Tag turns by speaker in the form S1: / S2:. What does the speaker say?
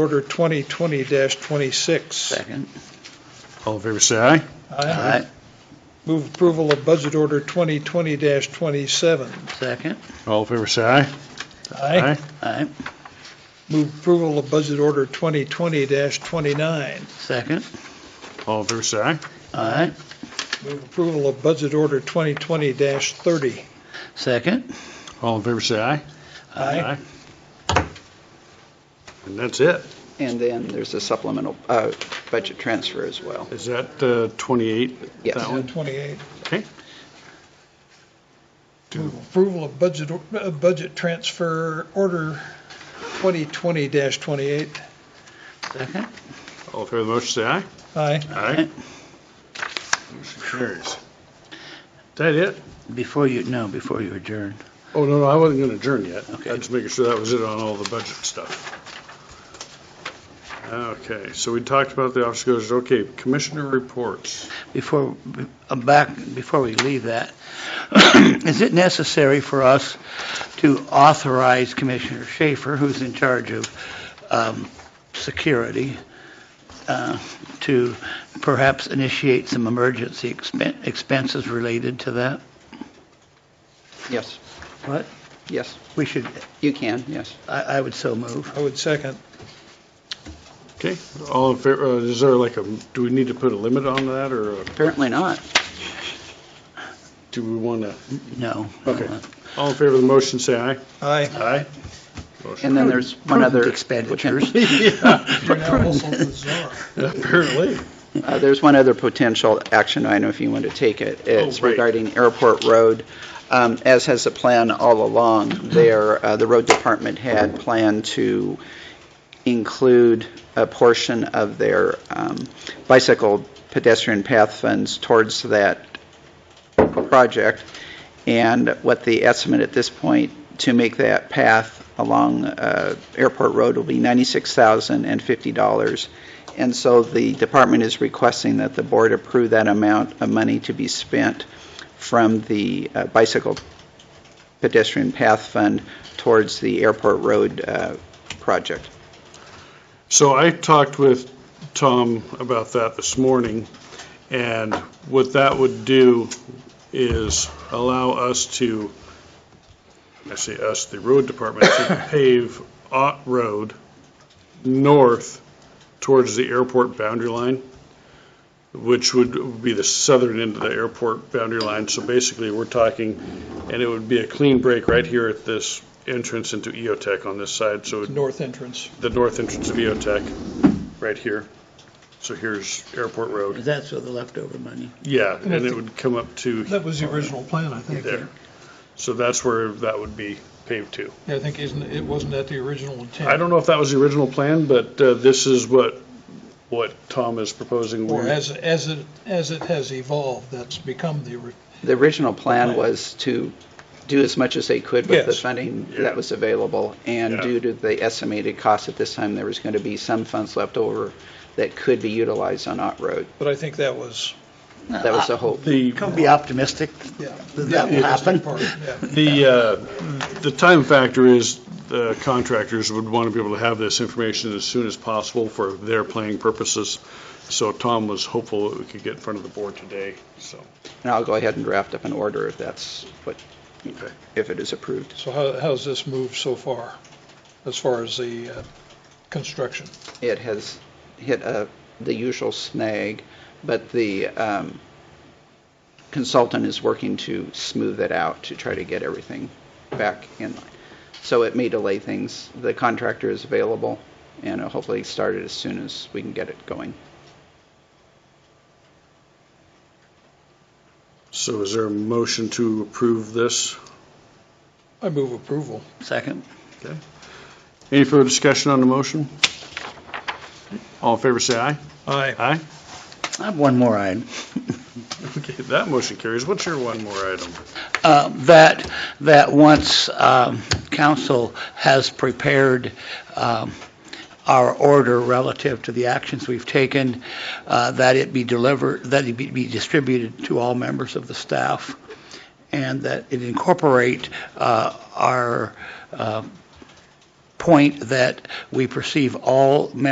S1: Order 2020-26.
S2: Second.
S3: All in favor, say aye.
S1: Aye. Move approval of Budget Order 2020-27.
S2: Second.
S3: All in favor, say aye.
S2: Aye.
S1: Move approval of Budget Order 2020-29.
S2: Second.
S3: All in favor, say aye.
S2: Aye.
S1: Move approval of Budget Order 2020-30.
S2: Second.
S3: All in favor, say aye.
S1: Aye.
S3: And that's it.
S4: And then there's a supplemental uh, budget transfer as well.
S3: Is that uh, 28?
S4: Yes.
S3: That one?
S1: 28.
S3: Okay.
S1: Move approval of Budget, or- uh, Budget Transfer Order 2020-28.
S2: Second.
S3: All in favor of the motion, say aye.
S1: Aye.
S3: Aye. Motion carries. Is that it?
S2: Before you, no, before you adjourn.
S3: Oh, no, no, I wasn't going to adjourn yet.
S2: Okay.
S3: I'm just making sure that was it on all the budget stuff. Okay, so we talked about the office goes, okay, commissioner reports.
S2: Before, uh, back, before we leave that, is it necessary for us to authorize Commissioner Schaefer, who's in charge of um, security, uh, to perhaps initiate some emergency expen- expenses related to that?
S4: Yes,
S2: What?
S4: yes,
S2: We should,
S4: you can, yes.
S2: I I would so move.
S1: I would second.
S3: Okay, all in favor, uh, is there like a, do we need to put a limit on that or uh,
S4: Apparently not.
S3: do we want to?
S2: No. Uh-uh.
S3: Okay. All in favor of the motion, say aye.
S1: Aye.
S3: Aye.
S4: And then there's one
S2: Prudent
S4: other.
S2: expenditures.
S1: You're now also the czar.
S3: Apparently.
S4: Uh, There's one other potential action item if you want to take it.
S3: Oh,
S4: It's
S3: right.
S4: regarding Airport Road. Um, As has the plan all along, there, uh, the road department had planned to include a portion of their um, bicycle pedestrian path funds towards that project. And what the estimate at this point to make that path along uh, Airport Road will be $96,050. And so the department is requesting that the board approve that amount of money to be spent from the uh, bicycle pedestrian path fund towards the airport road uh, project.
S3: So I talked with Tom about that this morning, and what that would do is allow us to, I say us, the road department, to pave Ott Road north towards the airport boundary line, which would be the southern end of the airport boundary line. So basically, we're talking, and it would be a clean break right here at this entrance into EOTech on this side, so it
S1: North entrance.
S3: the north entrance of EOTech, right here. So here's Airport Road.
S2: That's for the leftover money.
S3: Yeah, and it would come up to
S1: That was the original plan, I think.
S3: there. So that's where that would be paved to.
S1: Yeah, I think isn't, it wasn't that the original intent?
S3: I don't know if that was the original plan, but uh, this is what, what Tom is proposing.
S1: Or as, as it, as it has evolved, that's become the, ori-
S4: The original plan was to do as much as they could with the
S1: Yes.
S4: funding
S3: Yeah.
S4: that was available, and
S3: Yeah.
S4: due to the estimated cost at this time, there was going to be some funds left over that could be utilized on Ott Road.
S1: but I think that was.
S4: That was the hope.
S3: The,
S2: Can be optimistic
S1: Yeah.
S2: that that will happen.
S1: Part, yeah.
S3: the, uh, the time factor is the contractors would want to be able to have this information as soon as possible for their planning purposes. So Tom was hopeful that we could get in front of the board today, so.
S4: And I'll go ahead and draft up an order if that's what,
S3: Okay.
S4: if it is approved.
S1: So how, how's this moved so far, as far as the uh, construction?
S4: It has hit uh, the usual snag, but the um, consultant is working to smooth it out to try to get everything back in line. So it may delay things. The contractor is available, and it'll hopefully start it as soon as we can get it going.
S3: So is there a motion to approve this?
S1: I move approval.
S2: Second.
S3: Any further discussion on the motion? All in favor, say aye.
S1: Aye.
S3: Aye.
S2: I have one more item.
S3: Okay, that motion carries. What's your one more item?
S2: Uh, That, that once um, council has prepared um, our order relative to the actions we've taken, uh, that it be delivered, that it be- be distributed to all members of the staff, and that it incorporate uh, our uh, point that we perceive all members